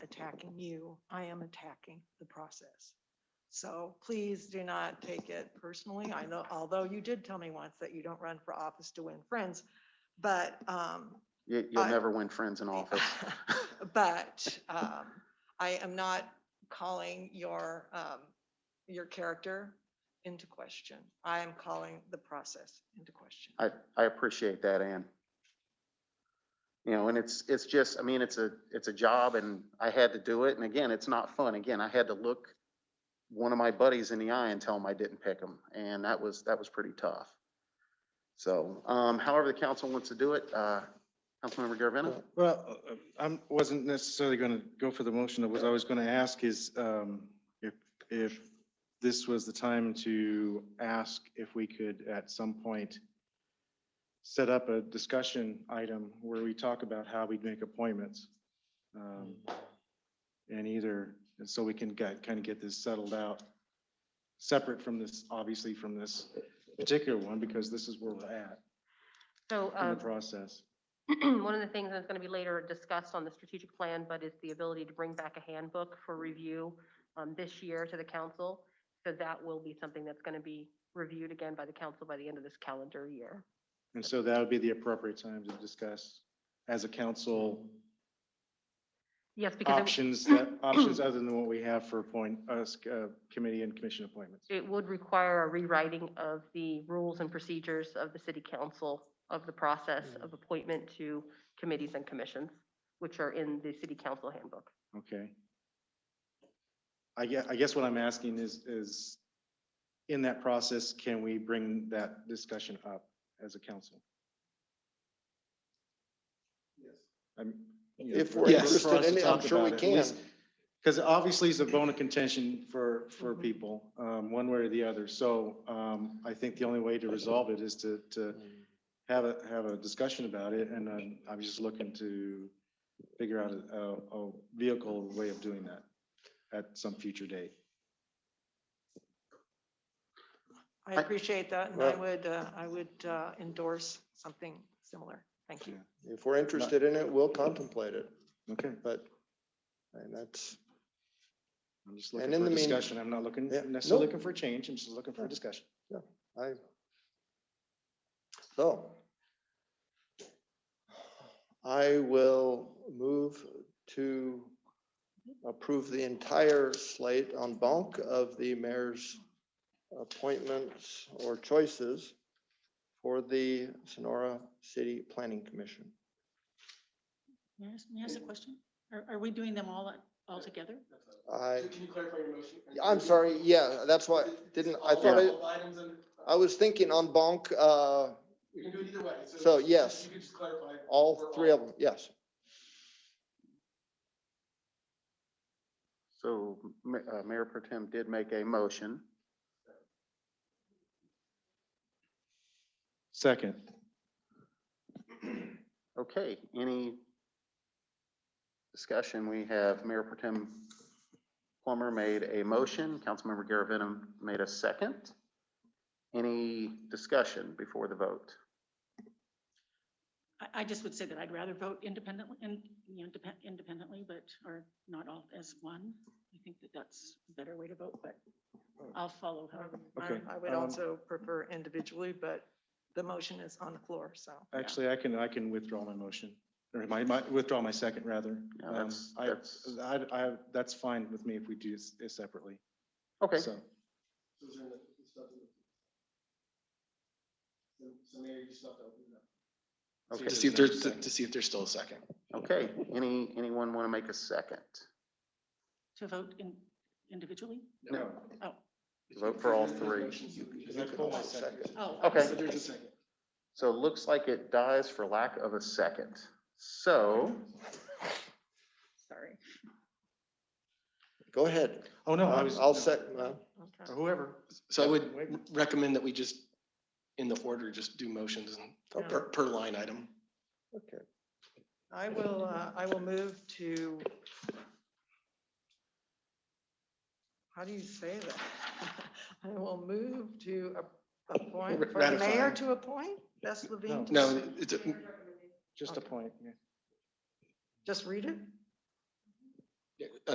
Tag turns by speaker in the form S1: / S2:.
S1: attacking you. I am attacking the process. So please do not take it personally. I know, although you did tell me once that you don't run for office to win friends, but, um,
S2: You, you'll
S1: I-
S2: never win friends in office.
S1: But um, I am not calling your, um, your character into question. I am calling the process into question.
S2: I, I appreciate that, Ann. You know, and it's, it's just, I mean, it's a, it's a job and I had to do it. And again, it's not fun. Again, I had to look one of my buddies in the eye and tell him I didn't pick him. And that was, that was pretty tough. So, um, however the council wants to do it, uh, Councilmember Garavena?
S3: Well, uh, I'm, wasn't necessarily going to go for the motion. What I was going to ask is um, if, if this was the time to ask if we could at some point set up a discussion item where we talk about how we'd make appointments. um, And either, and so we can get, kind of get this settled out, separate from this, obviously from this particular one, because this is where we're at
S4: So
S3: in
S4: uh,
S3: the process.
S4: one of the things that's going to be later discussed on the strategic plan, but is the ability to bring back a handbook for review um, this year to the council. So that will be something that's going to be reviewed again by the council by the end of this calendar year.
S3: And so that would be the appropriate time to discuss as a council
S4: Yes, because it-
S3: options, that options other than what we have for appoint, us, uh, committee and commission appointments.
S4: it would require a rewriting of the rules and procedures of the city council of the process of appointment to committees and commissions, which are in the city council handbook.
S3: Okay. I guess, I guess what I'm asking is, is in that process, can we bring that discussion up as a council? I'm. you know,
S5: If we're
S3: for us to
S5: interested in it, I'm
S3: talk
S5: sure we
S3: about at
S5: can.
S3: least- Because obviously it's a bone of contention for, for
S4: Mhm.
S3: people, um, one way or the other. So, um, I think the only way to resolve it is to, to have a, have a discussion about it. And I'm, I'm just looking to figure out a, a, a vehicle way of doing that at some future date.
S1: I appreciate that and I
S5: Well-
S1: would, uh, I would uh, endorse something similar. Thank you.
S5: If we're interested in it, we'll contemplate it,
S3: Okay,
S5: but, and that's,
S3: I'm just
S5: And
S3: looking
S5: in
S3: for a
S5: the mean-
S3: discussion. I'm not looking,
S5: Yeah,
S3: necessarily
S5: no.
S3: looking for a change. I'm just looking for a discussion.
S5: I, so. I will move to approve the entire slate on bulk of the mayor's appointments or choices for the Sonora City Planning Commission.
S6: May I ask, may I ask a question? Are, are we doing them all, at- all together?
S5: I,
S7: Can you clarify your motion?
S5: I'm sorry, yeah, that's why, didn't, I thought, I-
S7: All items and,
S5: I was thinking on bulk, uh,
S7: you can do it either way.
S5: So, yes.
S7: You can just clarify.
S5: all
S7: for
S5: three of them, yes.
S2: So, Ma- uh, Mayor Pro Tem did make a motion.
S3: Second.
S2: Okay, any discussion? We have Mayor Pro Tem Plummer made a motion, Councilmember Garaventa made a second. Any discussion before the vote?
S6: I, I just would say that I'd rather vote independently, and, you know, depend, independently, but, or not all as one. I think that that's a better way to vote, but I'll follow however.
S1: I-
S3: Okay,
S1: I would
S3: um,
S1: also prefer individually, but the motion is on the floor, so. yeah.
S3: Actually, I can, I can withdraw my motion, or my, my, withdraw my second, rather.
S2: Yeah,
S3: Um,
S2: that's-
S3: I,
S2: that's-
S3: I, I, that's fine with me if we do it separately,
S2: Okay,
S3: so.
S7: So is there no- it's not- So, so Mayor, you just have to open it up.
S2: okay,
S3: see if there's, to see.
S2: okay. Any, anyone want to make a second?
S6: To vote in, individually?
S2: No.
S6: Oh,
S2: Vote for all three.
S3: Because I pulled my second.
S6: oh.
S2: Okay.
S7: So there's a second.
S2: So it looks like it dies for lack of a second. So,
S6: Sorry.
S5: Go ahead.
S3: Oh, no, I was.
S5: I'll second, uh,
S1: Okay.
S3: or Whoever.
S7: So I
S3: Wait.
S7: would recommend that we just, in the order, just do motions and
S5: okay,
S7: Oh, per, per line item.
S5: okay.
S1: I will, uh, I will move to. How do you say that? I will move to a- appoint, for the mayor
S7: Ratify.
S1: to appoint, Bess Levine? to-
S7: No, it's, a-
S3: Just a point, yeah.
S1: Just read it?